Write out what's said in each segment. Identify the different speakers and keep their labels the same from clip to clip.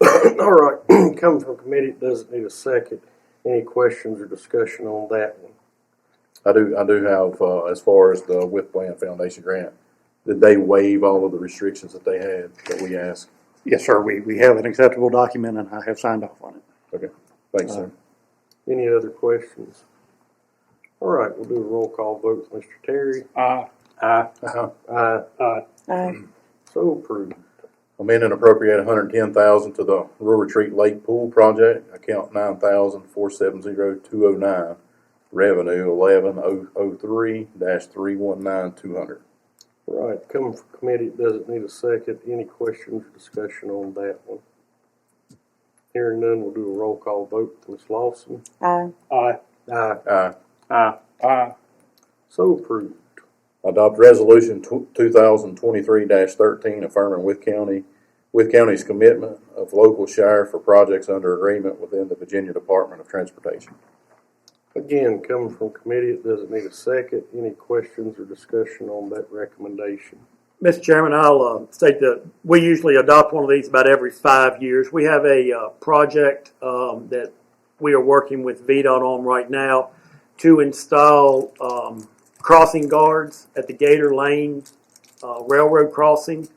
Speaker 1: All right, coming from committee, it doesn't need a second. Any questions or discussion on that one?
Speaker 2: I do, I do have, uh, as far as the With Plan Foundation grant, did they waive all of the restrictions that they had that we asked?
Speaker 3: Yes, sir, we, we have an acceptable document and I have signed off on it.
Speaker 2: Okay, thanks, sir.
Speaker 1: Any other questions? All right, we'll do a roll call vote with Mr. Terry.
Speaker 4: Uh,
Speaker 5: Aye.
Speaker 1: Aye.
Speaker 2: Uh-huh.
Speaker 1: Aye.
Speaker 4: Aye.
Speaker 1: So approved.
Speaker 2: Amend and appropriate hundred and ten thousand to the Rural Retreat Lake Pool Project, account nine thousand four seven zero two oh nine, revenue eleven oh oh three dash three one nine two hundred.
Speaker 1: All right, coming from committee, it doesn't need a second. Any questions or discussion on that one? Hearing none, we'll do a roll call vote with Ms. Lawson.
Speaker 4: Aye.
Speaker 5: Aye.
Speaker 1: Aye.
Speaker 2: Aye.
Speaker 5: Aye. Aye.
Speaker 1: So approved.
Speaker 2: Adopt Resolution two thousand twenty-three thirteen affirming with county, with county's commitment of local share for projects under agreement within the Virginia Department of Transportation.
Speaker 1: Again, coming from committee, it doesn't need a second. Any questions or discussion on that recommendation?
Speaker 6: Mr. Chairman, I'll uh, state that we usually adopt one of these about every five years. We have a uh, project um, that we are working with VDOT on right now to install um, crossing guards at the Gator Lane uh, Railroad crossing,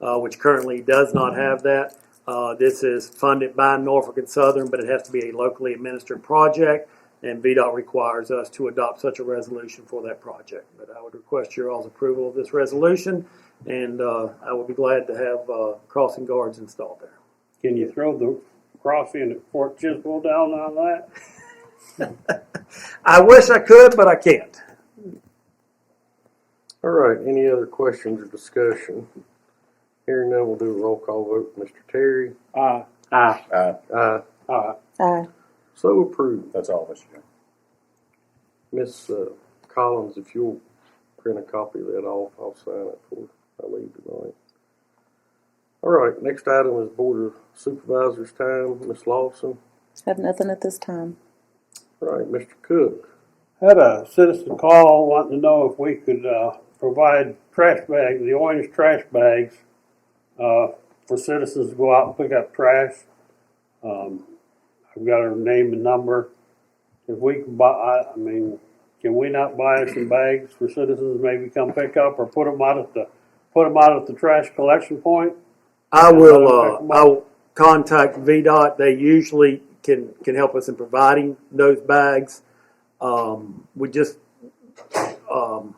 Speaker 6: uh, which currently does not have that. Uh, This is funded by Norfolk and Southern, but it has to be a locally administered project, and VDOT requires us to adopt such a resolution for that project. But I would request your all's approval of this resolution, and uh, I would be glad to have uh, crossing guards installed there.
Speaker 5: Can you throw the crossing at Fort Chiswell down on that?
Speaker 6: I wish I could, but I can't.
Speaker 1: All right, any other questions or discussion? Hearing none, we'll do a roll call vote. Mr. Terry?
Speaker 5: Aye. Aye.
Speaker 2: Aye,
Speaker 1: Aye.
Speaker 5: Aye.
Speaker 4: Aye.
Speaker 1: So approved.
Speaker 2: that's all, Mr. Chairman.
Speaker 1: Miss uh, Collins, if you'll print a copy of that off, I'll sign it for I leave tonight. All right, next item is Board of Supervisors time. Miss Lawson?
Speaker 4: Have nothing at this time.
Speaker 1: All right, Mr. Cook?
Speaker 5: Had a citizen call wanting to know if we could, uh, provide trash bags, the orange trash bags, uh, for citizens to go out and pick up trash. Um, I've got her name and number. If we can buy, I, I mean, can we not buy some bags for citizens maybe come pick up or put them out at the, put them out at the trash collection point?
Speaker 6: I will, uh, I'll contact VDOT. They usually can, can help us in providing those bags. Um, we just, um,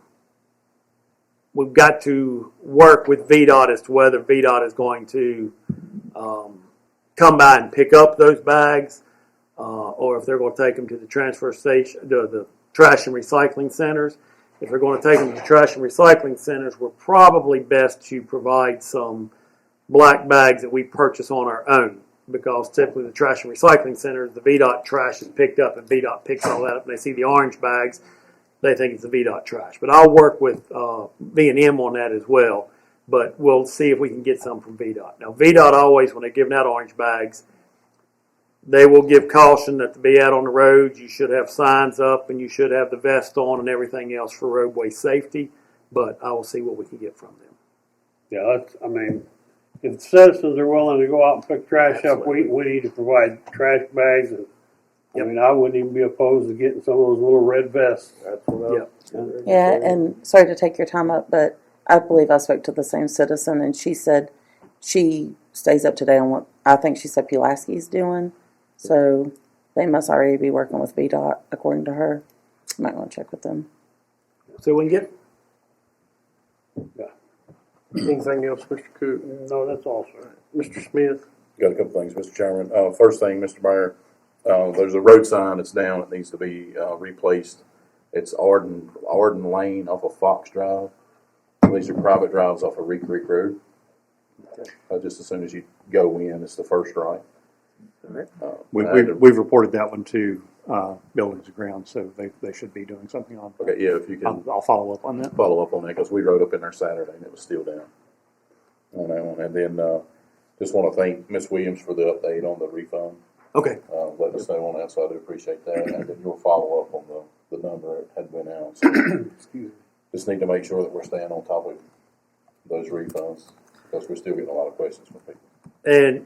Speaker 6: we've got to work with VDOT as to whether VDOT is going to, um, come by and pick up those bags, uh, or if they're gonna take them to the transfer station, the, the trash and recycling centers. If they're gonna take them to trash and recycling centers, we're probably best to provide some, black bags that we purchase on our own because typically the trash and recycling centers, the VDOT trash is picked up and VDOT picks all that up and they see the orange bags, they think it's the VDOT trash. But I'll work with uh, V&M on that as well, but we'll see if we can get some from VDOT. Now, VDOT always, when they're giving out orange bags, they will give caution that to be out on the roads, you should have signs up and you should have the vest on and everything else for roadway safety. But I will see what we can get from them.
Speaker 5: Yeah, that's, I mean, if citizens are willing to go out and pick trash up, we, we need to provide trash bags and, I mean, I wouldn't even be opposed to getting some of those little red vests.
Speaker 1: That's what I.
Speaker 4: Yeah, and sorry to take your time up, but I believe I spoke to the same citizen and she said she stays up to date on what, I think she said Pulaski's doing. So they must already be working with VDOT according to her. Might want to check with them.
Speaker 6: So we can get
Speaker 1: Anything else, Mr. Cook?
Speaker 5: No, that's all, sir.
Speaker 1: Mr. Smith?
Speaker 2: Got a couple things, Mr. Chairman. Uh, first thing, Mr. Mayor, uh, there's a road sign that's down, it needs to be, uh, replaced. It's Arden, Arden Lane off of Fox Drive. These are private drives off of Reed Creek Road. Uh, just as soon as you go in, it's the first right. Uh,
Speaker 3: We,
Speaker 2: I
Speaker 3: we,
Speaker 2: had to-
Speaker 3: we've reported that one to, uh, Buildings and Grounds, so they, they should be doing something on.
Speaker 2: Okay, yeah, if you can.
Speaker 3: I'll, I'll follow up on that.
Speaker 2: follow up on that because we rode up in there Saturday and it was still down on that one. And then uh, just want to thank Miss Williams for the update on the refund.
Speaker 6: Okay.
Speaker 2: Uh, letting us know on that, so I do appreciate that. And then your follow up on the, the number that had been out. So just need to make sure that we're staying on top of those refunds because we're still getting a lot of questions from people.
Speaker 6: And